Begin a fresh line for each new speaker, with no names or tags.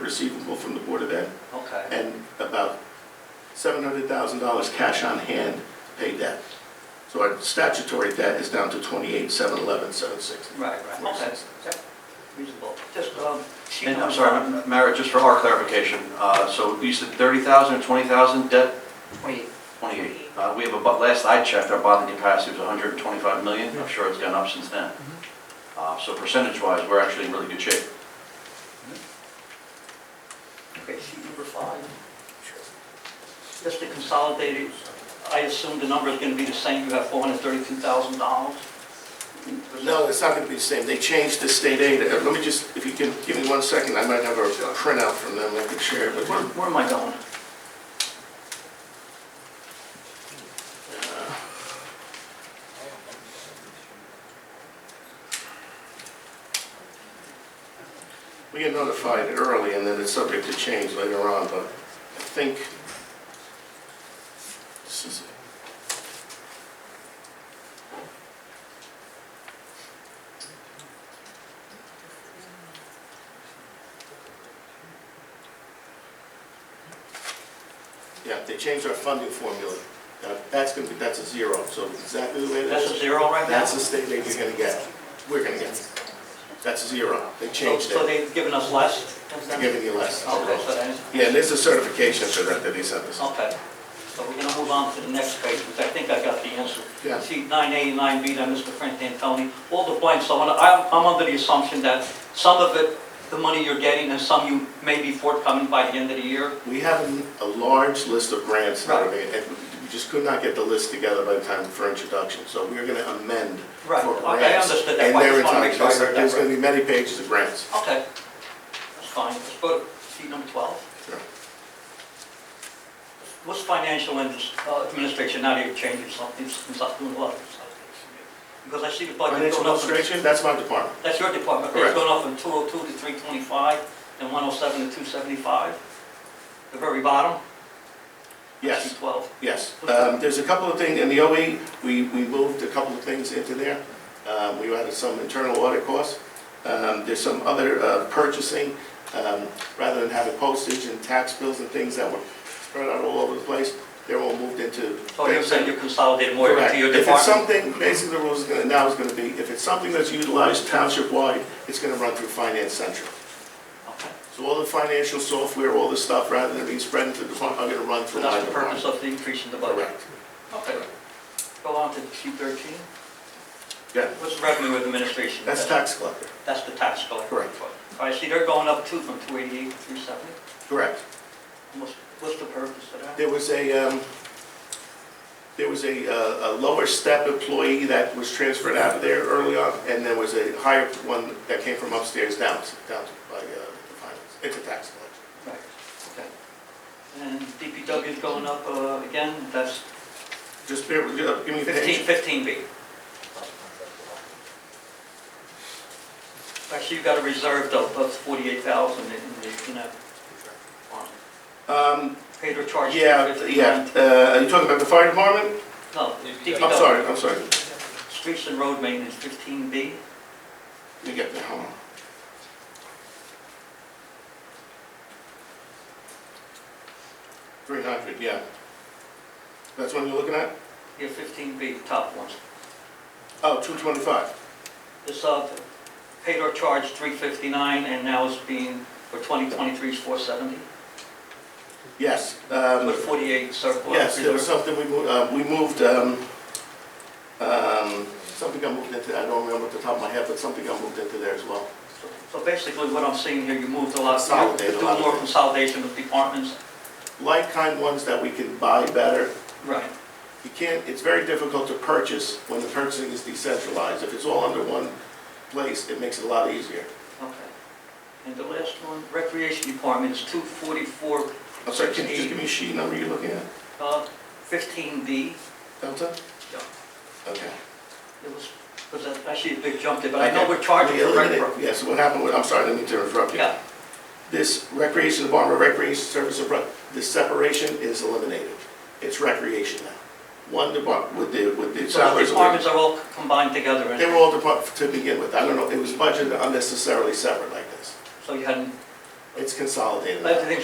receivable from the Board of Ed,
Okay,
and about $700,000 cash on hand to pay debt. So our statutory debt is down to 28, 711, 760.
right, right, okay, yep, reasonable. Just, um, she
And I'm
comes on uh,
sorry, Mara, just for our clarification, uh, so you said 30,000 or 20,000 debt?
twenty,
28. Uh, We have a, bu- last I checked, our bonding capacity was 125 million. I'm sure it's gone up since then. Uh, So percentage-wise, we're actually in really good shape.
okay, sheet number five. Just the consolidated, I assume the number is gonna be the same, you have four hundred thirty-two thousand dollars?
No, it's not going to be the same. They changed the state aid. Uh, Let me just, if you can, give me one second, I might have a a printout from them I can share with
Where,
you.
where am I going?
We get notified early, and then it's subject to change later on, but I think this is it. Yeah, they changed our funding formula. Now, That's going to be, that's a zero, so exactly the way that
That's a
is,
zero right now?
that's the state aid you're going to get, we're going to get. That's a zero, they
So-
changed it.
So they've given us less?
I'm giving you less.
Okay, so then,
Yeah, and there's a certification for that that he sent us.
okay. So we're gonna move on to the next page, because I think I got the answer.
Yeah.
Sheet nine eighty-nine B, that Mr. Frank Antoni, all the blanks, so I'm, I'm under the assumption that some of it, the money you're getting, and some you may be forthcoming by the end of the year.
We have a- a large list of grants, that are being-
Right.
and we just could not get the list together by the time for introduction, so we're going to amend for
Right,
grants.
okay, I understood that.
And
I just
they're
wanna make
entitled.
sure I
There's-
heard that
There's
right.
going to be many pages of grants.
Okay, that's fine, let's go to sheet number twelve.
Sure.
What's financial and, uh, administration, now you're changing something, something's up doing what? Because I see the budget
Financial
going up.
administration, that's my department.
That's your department, it's
Correct.
going up from 202 to 325, and 107 to 275, the very bottom?
Yes,
Sheet 12.
yes. Um, There's a couple of things, in the OE, we we moved a couple of things into there. Um, We added some internal audit costs. Um, There's some other uh, purchasing, um, rather than having postage and tax bills and things that were spread out all over the place, they're all moved into.
So Oh, you're saying you consolidated more
Correct.
into your
If it's
department?
something, basically the rules is gonna, now is gonna be, if it's something that's utilized township-wide, it's gonna run through Finance Central.
Okay.
So all the financial software, all the stuff, rather than being spread into the department, are gonna run
So
through my
that's the purpose
department.
of the increase in the budget?
Correct.
Okay. Go on to sheet 13.
Yeah,
What's revenue administration?
that's tax collector.
That's the tax collector.
Correct.
All right, see, they're going up too, from 288 to 370.
Correct.
What's- What's the purpose of that?
There was a, um, there was a, uh, a lower step employee that was transferred out of there early on, and there was a higher one that came from upstairs down, down by, uh, the finance, into tax collector.
Right, okay. And DPW is going up uh, again, that's
Just bear, with- uh, give me a page.
15, 15B. Actually, you've got a reserve of of 48,000 in the, in that fund.
Um,
Paid or charged.
yeah,
15.
yeah, uh, are you talking about the fire department?
No, DPW.
I'm sorry, I'm sorry.
Streets and road maintenance, 15B.
Let me get there, hold on. Three hundred, yeah. That's one you're looking at?
Yeah, 15B, top ones.
Oh, two twenty-five.
This, uh, paid or charged, 359, and now it's being, for 2023 is 470.
Yes,
But
um,
48 surplus.
yes, there was
reserve.
something we moved, uh, we moved, um, um, something got moved into, I don't remember at the top of my head, but something got moved into there as well.
So basically, what I'm seeing here, you moved a lot.
Consolidated a lot
Do
of
more
things.
consolidation of departments.
Like-kind ones that we can buy better,
Right.
You can't, it's very difficult to purchase when the purchasing is decentralized. If it's all under one place, it makes it a lot easier.
Okay. And the last one, Recreation Department is 244,
I'm sorry, can you just give me a sheet number you're looking at,
uh, 15B.
Delta?
Yeah.
Okay.
It was, was that actually a big jump there, but I know we're charging
We
for rec.
eliminated- Yeah, so what happened, with- I'm sorry, I didn't mean to interrupt you.
Yeah,
This recreation department, recreation service, and rec- this separation is eliminated. It's recreation now. One department with the, with the
so the
salaries.
departments are all combined together,
They
and
were all department to begin with. I don't know, it was budgeted unnecessarily separate like this.
so you hadn't.
it's consolidated.
I think